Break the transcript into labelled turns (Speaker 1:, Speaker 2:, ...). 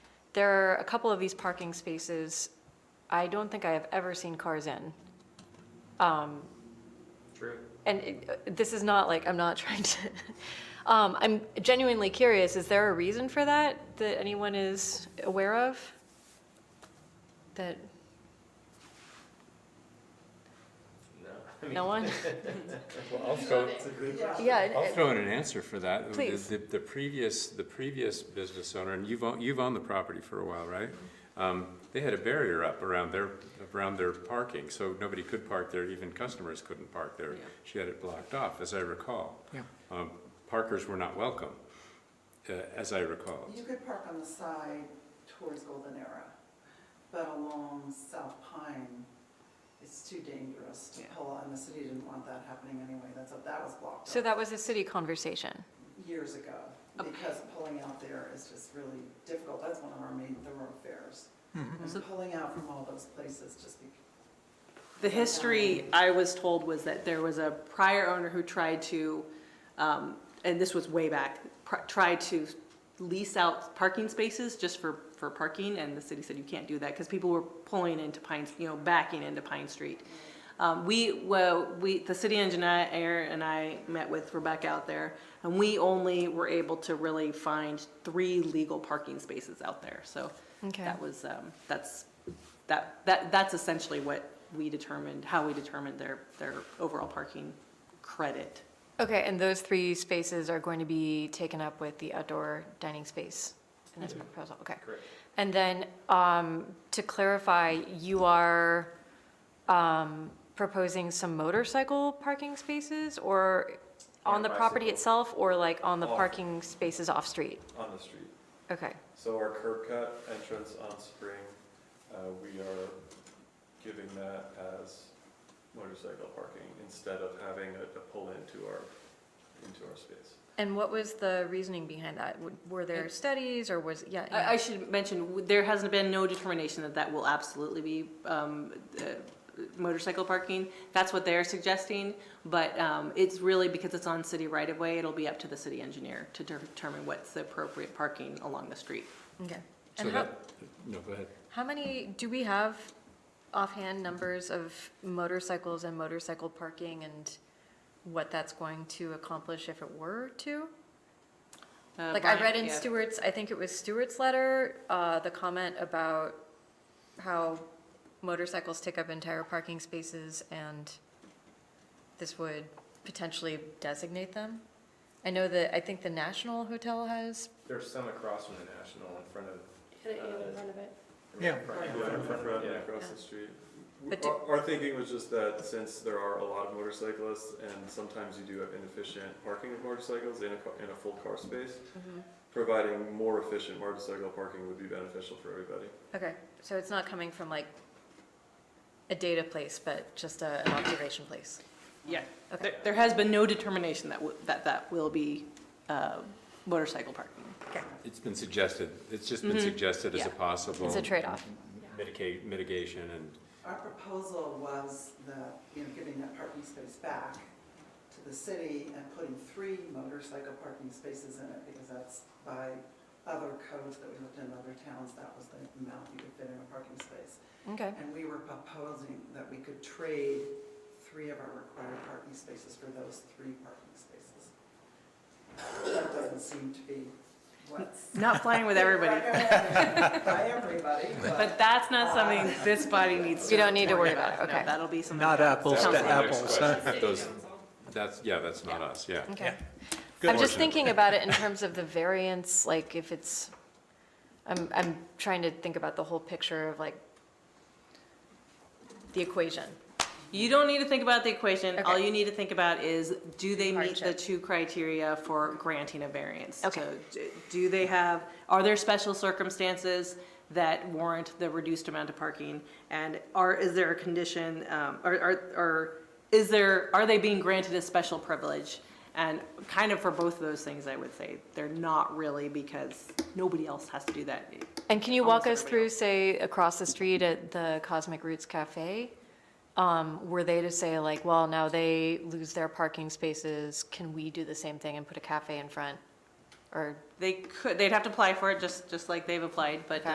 Speaker 1: There are a couple of these parking spaces I don't think I have ever seen cars in. Um,
Speaker 2: True.
Speaker 1: And it- uh, this is not like, I'm not trying to, um, I'm genuinely curious, is there a reason for that that anyone is aware of? That,
Speaker 2: No. I mean,
Speaker 1: no one?
Speaker 3: Well, I'll throw, I'll
Speaker 1: Yeah,
Speaker 3: throw in an answer for that. The-
Speaker 1: Please.
Speaker 3: The, the previous, the previous business owner, and you've, owned- you've owned the property for a while, right? Um, They had a barrier up around their, around their parking, so nobody could park there, even customers couldn't park there. She had it blocked off, as I recall.
Speaker 4: Yeah.
Speaker 3: Um, Parkers were not welcome, uh, as I recall.
Speaker 5: You could park on the side towards Golden Era, but along South Pine, it's too dangerous to pull, and the city didn't want that happening anyway, that's, that was blocked
Speaker 1: so
Speaker 5: off
Speaker 1: that was a city conversation.
Speaker 5: years ago, because pulling out there is just really difficult, that's one of our main thoroughfares. And pulling out from all those places just be,
Speaker 6: The history I was told was that there was a prior owner who tried to, um, and this was way back, pr- tried to lease out parking spaces just for, for parking, and the city said you can't do that, because people were pulling into Pine, you know, backing into Pine Street. Um, we, well, we, the city engineer and I met with Rebecca out there, and we only were able to really find three legal parking spaces out there, so.
Speaker 1: Okay.
Speaker 6: That was, um, that's, that, that, that's essentially what we determined, how we determined their, their overall parking credit.
Speaker 1: Okay, and those three spaces are going to be taken up with the outdoor dining space in this proposal, okay.
Speaker 2: Mm-hmm. Correct.
Speaker 1: And then, um, to clarify, you are, um, proposing some motorcycle parking spaces or on
Speaker 2: Yeah,
Speaker 1: the property
Speaker 2: bicycle.
Speaker 1: itself or like on the
Speaker 2: Off.
Speaker 1: parking spaces off-street?
Speaker 2: On the street.
Speaker 1: Okay,
Speaker 2: So our curb cut entrance on Spring, uh, we are giving that as motorcycle parking instead of having a, a pull into our, into our space.
Speaker 1: and what was the reasoning behind that? W- Were there studies or was, yeah? yeah.
Speaker 6: I, I should mention, w- there has been no determination that that will absolutely be, um, uh, motorcycle parking. That's what they're suggesting, but, um, it's really because it's on city right of way, it'll be up to the city engineer to determine what's the appropriate parking along the street.
Speaker 1: Okay.
Speaker 3: So
Speaker 1: And how,
Speaker 3: that, no, go ahead.
Speaker 1: how many, do we have offhand numbers of motorcycles and motorcycle parking and what that's going to accomplish if it were to?
Speaker 6: Uh,
Speaker 1: Like I
Speaker 6: Brian-
Speaker 1: read in
Speaker 6: yeah.
Speaker 1: Stewart's, I think it was Stewart's letter, uh, the comment about how motorcycles take up entire parking spaces and this would potentially designate them. I know that, I think the National Hotel has,
Speaker 7: There's some across from the National in front of.
Speaker 2: in
Speaker 7: front of it.
Speaker 4: Yeah.
Speaker 2: Yeah, in front of-
Speaker 7: Yeah.
Speaker 2: across the street.
Speaker 1: But do-
Speaker 2: Our, our thinking was just that since there are a lot of motorcyclists and sometimes you do have inefficient parking of motorcycles in a, ca- in a full car space, providing more efficient motorcycle parking would be beneficial for everybody.
Speaker 1: okay, so it's not coming from like a data place, but just a, an observation place.
Speaker 6: Yeah,
Speaker 1: Okay.
Speaker 6: there, there has been no determination that, w- that that will be, uh, motorcycle parking.
Speaker 3: It's been suggested, it's just been suggested as a
Speaker 6: Yeah.
Speaker 1: Mm-hmm.
Speaker 3: possible.
Speaker 1: It's a trade-off.
Speaker 3: Mitigate, mitigation and
Speaker 5: our proposal was that, you know, giving that parking space back to the city and putting three motorcycle parking spaces in it, because that's by other codes that we looked in other towns, that was the amount you could fit in a parking space.
Speaker 1: Okay,
Speaker 5: And we were proposing that we could trade three of our required parking spaces for those three parking spaces. That doesn't seem to be what's.
Speaker 6: Not flying with everybody,
Speaker 5: recommended By everybody,
Speaker 6: but
Speaker 5: but
Speaker 6: that's not something this body needs to.
Speaker 1: You don't need to worry about it,
Speaker 6: No,
Speaker 1: okay.
Speaker 6: That'll be something.
Speaker 4: Not apples
Speaker 3: That was
Speaker 4: to
Speaker 3: my next
Speaker 4: apples, huh?
Speaker 3: question. Those- That's, yeah, that's not us, yeah.
Speaker 1: okay.
Speaker 3: Good
Speaker 1: I'm just
Speaker 3: fortune.
Speaker 1: thinking about it in terms of the variance, like if it's, I'm, I'm trying to think about the whole picture of like the equation.
Speaker 6: You don't need to think about the equation, all
Speaker 1: Okay.
Speaker 6: you need to think about is, do they meet the
Speaker 1: Hardship.
Speaker 6: two criteria for granting a variance?
Speaker 1: Okay.
Speaker 6: So, d- Do they have, are there special circumstances that warrant the reduced amount of parking? And are, is there a condition, um, or, or, or is there, are they being granted a special privilege? And kind of for both of those things, I would say, they're not really, because nobody else has to do that.
Speaker 1: And can you walk us
Speaker 6: Almost
Speaker 1: through, say, across the street at the Cosmic Roots Cafe? Um, Were they to say like, well, now they lose their parking spaces, can we do the same thing and put a cafe in front? Or
Speaker 6: They could, they'd have to apply for it, just, just like they've applied, but